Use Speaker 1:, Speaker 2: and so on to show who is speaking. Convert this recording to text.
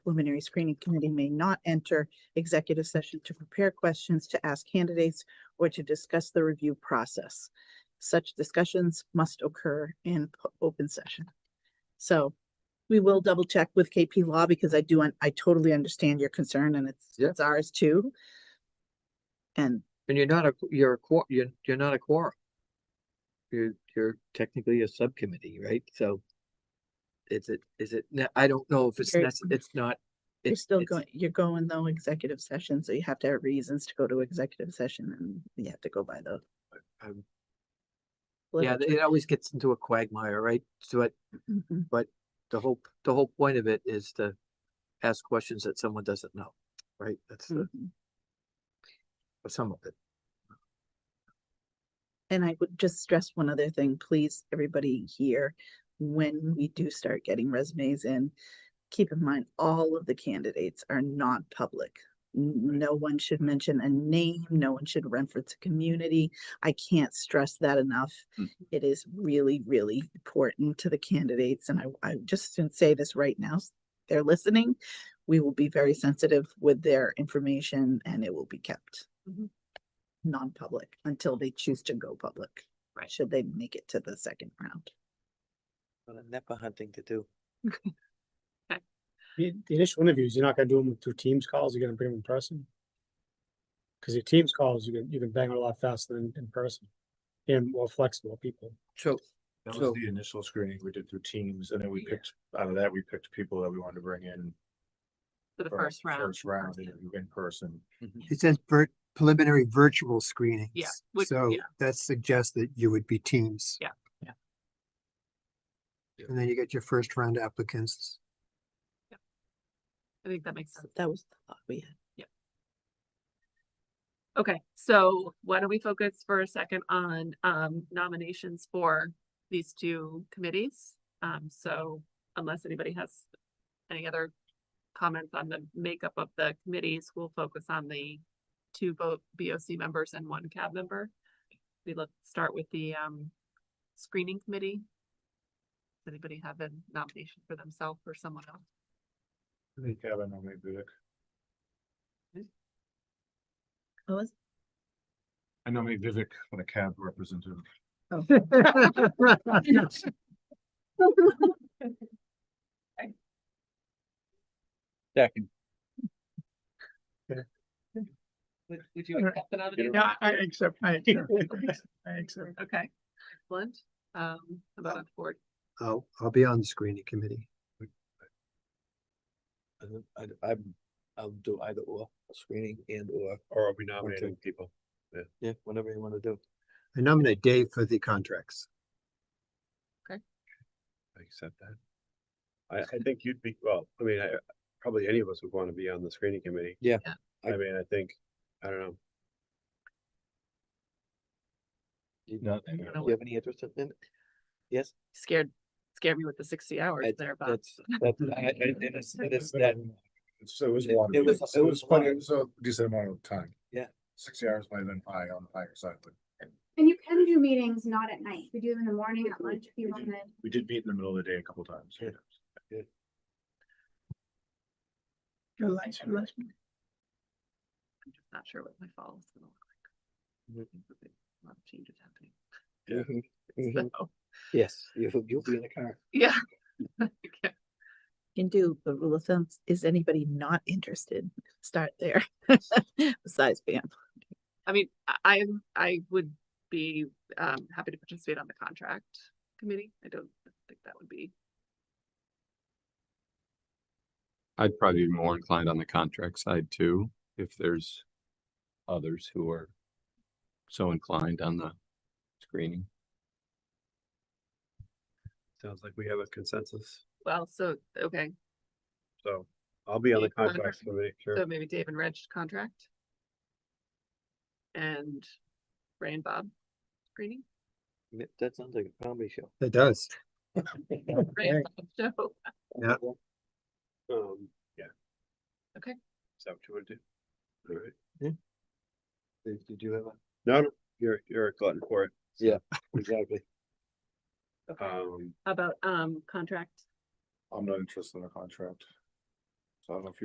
Speaker 1: preliminary screening committee may not enter executive session to prepare questions to ask candidates or to discuss the review process. Such discussions must occur in p- open session. So we will double check with KP Law because I do, un- I totally understand your concern and it's,
Speaker 2: Yeah.
Speaker 1: it's ours too. And
Speaker 2: And you're not a, you're a, quor- you're, you're not a quorum. You're, you're technically a subcommittee, right? So. Is it, is it, ne- I don't know if it's,
Speaker 1: You're-
Speaker 2: nece- it's not.
Speaker 1: you're
Speaker 2: it's-
Speaker 1: still
Speaker 2: it's-
Speaker 1: going, you're going though executive session, so you have to have reasons to go to executive session and you have to go by the.
Speaker 2: um, Yeah,
Speaker 1: literature.
Speaker 2: it always gets into a quagmire, right? So it-
Speaker 1: Mhm.
Speaker 2: the whole, the whole point of it is to ask questions that someone doesn't know, right? That's the,
Speaker 1: Mhm.
Speaker 2: some of it.
Speaker 1: And I would just stress one other thing, please, everybody here, when we do start getting resumes in, keep in mind, all of the candidates are not public. N- No one should mention a name, no one should reference a community. I can't stress that enough.
Speaker 3: Mm.
Speaker 1: It is really, really important to the candidates, and I, I just didn't say this right now, s- they're listening. We will be very sensitive with their information and it will be kept non-public until they choose to go public.
Speaker 3: Right.
Speaker 1: Should they make it to the second round?
Speaker 2: What a NEPA hunting to do.
Speaker 4: The, the initial interviews, you're not gonna do them through Teams calls, you're gonna bring them in person. Cause your Teams calls, you can, you can bang on a lot faster than in person. And more flexible people.
Speaker 2: So,
Speaker 3: That
Speaker 2: So-
Speaker 3: was the initial screening we did through teams and then we picked, out of that, we picked people that we wanted to bring in.
Speaker 5: For the
Speaker 3: for
Speaker 5: first round.
Speaker 3: First round
Speaker 5: person.
Speaker 3: interview in person.
Speaker 6: It says vir- preliminary virtual screenings.
Speaker 5: would-
Speaker 6: So
Speaker 5: yeah.
Speaker 6: that suggests that you would be teams.
Speaker 5: Yeah,
Speaker 2: yeah. Yeah.
Speaker 6: And then you get your first round applicants.
Speaker 5: I think that makes sense.
Speaker 1: Uh, That was the thought we had.
Speaker 5: Okay, so why don't we focus for a second on um nominations for these two committees? Um, so unless anybody has any other comments on the makeup of the committees, we'll focus on the two vote BOC members and one cab member. We look, start with the um screening committee. Does anybody have a nomination for themselves or someone else?
Speaker 3: I think Kevin or maybe Vivek.
Speaker 1: Oh, is-
Speaker 3: I nominate Vivek for the cab representative.
Speaker 2: Second.
Speaker 5: Would, would you accept the nomination?
Speaker 4: I accept, I accept.
Speaker 5: Okay, excellent. Um, how about on board.
Speaker 2: oh,
Speaker 6: I'll, I'll be on the screening committee.
Speaker 2: I, I'm, I'll do either or, screening and or,
Speaker 3: Or are we nominating people?
Speaker 2: yeah, whatever you want to do.
Speaker 6: I nominate Dave for the contracts.
Speaker 3: I accept that. I, I think you'd be, well, I mean, I, probably any of us would want to be on the screening committee.
Speaker 2: Yeah.
Speaker 5: Yeah.
Speaker 3: I mean, I think, I don't know.
Speaker 2: Do you-
Speaker 3: Not-
Speaker 2: do you
Speaker 5: I don't
Speaker 2: have any interest in it? Yes?
Speaker 5: Scared, scared me with the sixty hours
Speaker 2: I-
Speaker 5: there, but
Speaker 2: That's, that's, I, I, it is, it is that,
Speaker 3: So it was
Speaker 2: It-
Speaker 3: water.
Speaker 2: it was- it was
Speaker 3: quite
Speaker 2: water.
Speaker 3: a so decent amount of time.
Speaker 2: Yeah.
Speaker 3: Sixty hours might have been high on the higher side, but.
Speaker 7: And you can do meetings not at night. We do them in the morning, at lunch, if you
Speaker 3: We do.
Speaker 7: wanted.
Speaker 3: We did meet in the middle of the day a couple times.
Speaker 2: Yeah.
Speaker 5: I'm just not sure what my fall is gonna look like. A lot of changes happening.
Speaker 3: Yeah.
Speaker 2: Mhm.
Speaker 5: So,
Speaker 2: yes, you, you'll be in the car.
Speaker 5: yeah. Okay.
Speaker 1: Can do, the rule of thumb, is anybody not interested? Start there. Besides Pam.
Speaker 5: I mean, I, I, I would be, um, happy to participate on the contract committee. I don't think that would be.
Speaker 8: I'd probably be more inclined on the contract side too, if there's others who are so inclined on the screening.
Speaker 3: Sounds like we have a consensus,
Speaker 5: Well, so, okay,
Speaker 3: so I'll be on the
Speaker 5: Yeah, contract.
Speaker 3: contracts committee,
Speaker 5: so
Speaker 3: sure.
Speaker 5: maybe Dave and Reg contract. And Ray and Bob screening.
Speaker 2: Yeah, That sounds like a comedy show.
Speaker 6: That does.
Speaker 5: Ray and Bob show.
Speaker 3: Um, yeah.
Speaker 5: Okay.
Speaker 3: Is that what you want to do? All right.
Speaker 2: Did did you have a?
Speaker 3: No, no, you're, you're a glutton for it.
Speaker 2: Exactly.
Speaker 5: Okay.
Speaker 3: Um,
Speaker 5: How About, um, contract.
Speaker 3: I'm not interested in a contract. So I don't know if you